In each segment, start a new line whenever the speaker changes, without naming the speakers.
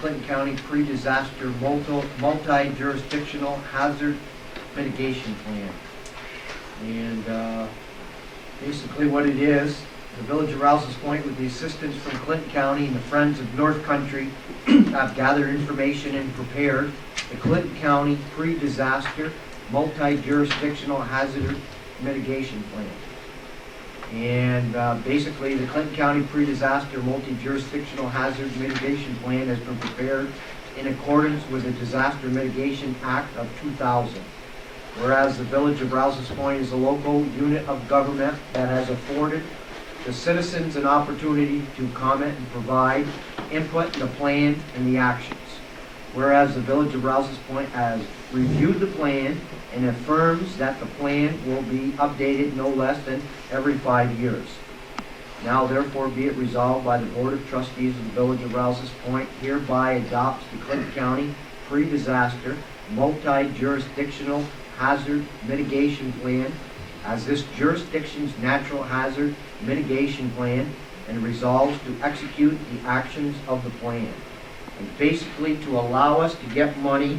Clinton County Pre-Disaster Multi- Multi-Jurisdictional Hazard Mitigation Plan. And uh, basically what it is, the Village of Rouse's Point with the assistance from Clinton County and the Friends of North Country have gathered information and prepared the Clinton County Pre-Disaster Multi-Jurisdictional Hazard Mitigation Plan. And uh, basically, the Clinton County Pre-Disaster Multi-Jurisdictional Hazard Mitigation Plan has been prepared in accordance with the Disaster Mitigation Act of 2000. Whereas the Village of Rouse's Point is a local unit of government that has afforded the citizens an opportunity to comment and provide input in the plan and the actions. Whereas the Village of Rouse's Point has reviewed the plan and affirms that the plan will be updated no less than every five years. Now therefore be it resolved by the Board of Trustees of the Village of Rouse's Point hereby adopts the Clinton County Pre-Disaster Multi-Jurisdictional Hazard Mitigation Plan as this jurisdiction's natural hazard mitigation plan and resolves to execute the actions of the plan. And basically to allow us to get money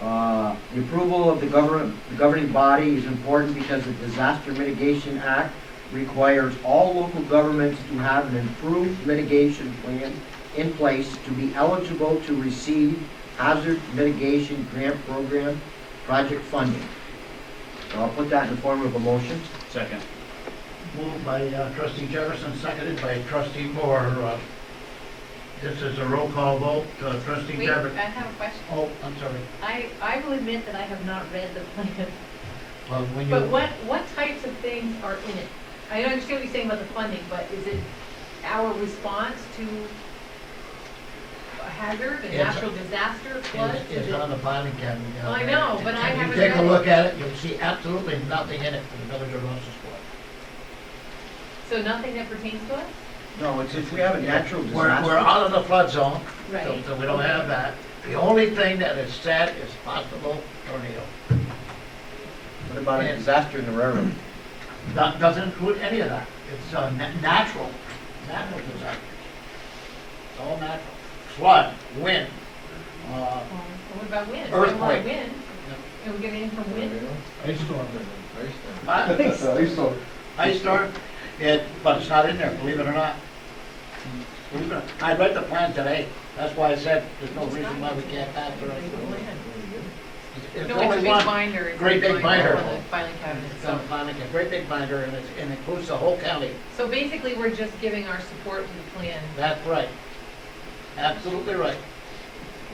uh, The approval of the govern- the governing body is important because the Disaster Mitigation Act requires all local governments to have an improved mitigation plan in place to be eligible to receive hazard mitigation grant program project funding. So I'll put that in the form of a motion.
Second.
Moved by uh, trustee Jefferson, seconded by trustee Moore. Uh, This is a roll call vote. Uh, Trustee
Wait,
Jefferson.
I have a question.
Oh, I'm sorry.
I, I will admit that I have not read the plan,
Well, when
but
you,
what, what types of things are in it? I understand what you're saying about the funding, but is it our response to a hazard, a
It's-
natural disaster, flood?
it's,
Is
it's
it-
on the bottom again. uh,
I know, but I
if
haven't
You take a
read it.
look at it, you'll see absolutely nothing in it for the village of Rouse's Point.
So nothing that pertains to us?
No, it's if we have a natural
We're, we're
disaster.
out of the flood zone, so
Right.
so we don't have that. The only thing that is said is possible tornado.
What about a disaster in the railroad?
That doesn't include any of that. It's uh, na- natural, natural disasters. It's all natural. Flood, wind, uh,
Well, What about wind? I
Earthquake.
want wind. Can we get anything from wind?
Ice storm.
ice
Ice storm.
ice storm, it, but it's not in there, believe it or not. Believe it or not. I read the plan today. That's why I said there's no reason why we can't pass the rest of it. It's
No, it's a
only
big
one.
binder. It's a
great big binder.
for the Filing cabinet,
It's
so.
on Bonnet, a great big binder, and it's- and it includes the whole county.
So basically, we're just giving our support to the plan.
That's right. Absolutely right.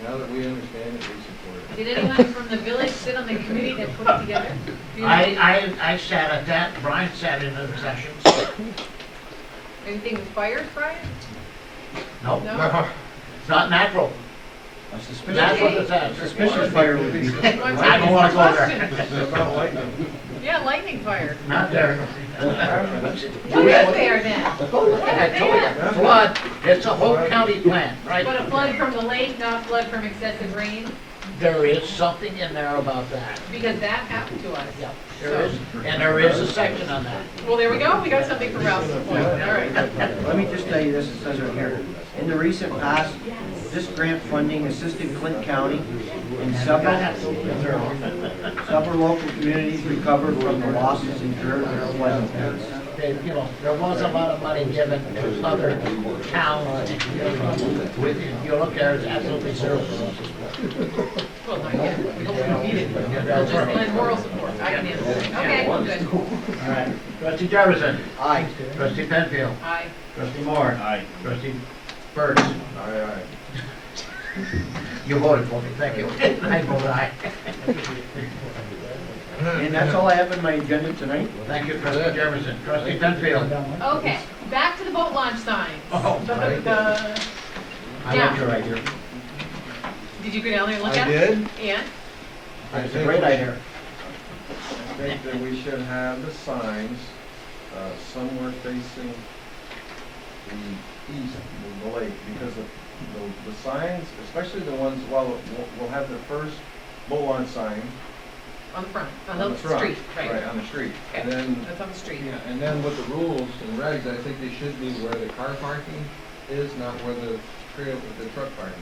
Now that we understand it, we support it.
Did anyone from the village sit on the committee that put it together? Do you know
I, I, I sat at that, Brian sat in other sessions.
Anything with fires, Brian?
No,
No.
it's not natural.
A suspicious,
That's what it says.
suspicious fire would be.
I don't wanna go there.
About lightning.
Yeah, lightning fire.
Not there.
What is there then?
I told you, flood, it's a whole county plan,
But
right?
a flood from the lake, not flood from excessive rain,
There is something in there about that.
because that happened to us.
Yeah, there is, and there is a section on that.
Well, there we go, we got something for Rouse's Point, all right.
Let me just tell you this, it says right here, in the recent past, this grant funding assisted Clinton County in several, several local communities recovered from the losses incurred in flood events.
They, you know, there was a lot of money given to other towns and communities. With- If you look there, it's absolutely zero.
Well, not yet, we don't need it.
Yeah,
We'll
that's
just lend
right.
moral support, I can handle it. Okay, good.
All right. Trustee Jefferson.
Aye.
Trustee Penfield.
Aye.
Trustee Moore.
Aye.
Trustee Burns.
Aye, aye.
You voted for me, thank you. I voted aye.
And that's all I have in my agenda tonight.
Thank you, trustee Jefferson. Trustee Penfield.
Okay, back to the boat launch signs.
Oh, very
Da-da-da-da.
I like your idea.
Did you go down there and look
I
at it?
did.
And?
I
It's a
think
great
we
idea.
should- I think that we should have the signs uh, somewhere facing the east of the lake, because the, the- the signs, especially the ones, well, we'll- we'll have the first Bolon sign
On the front, on
on
the
the front.
street, right.
on the street.
Okay.
And then
That's on the street.
Yeah, and then with the rules and regs, I think they should be where the car parking is not where the trail, the truck parking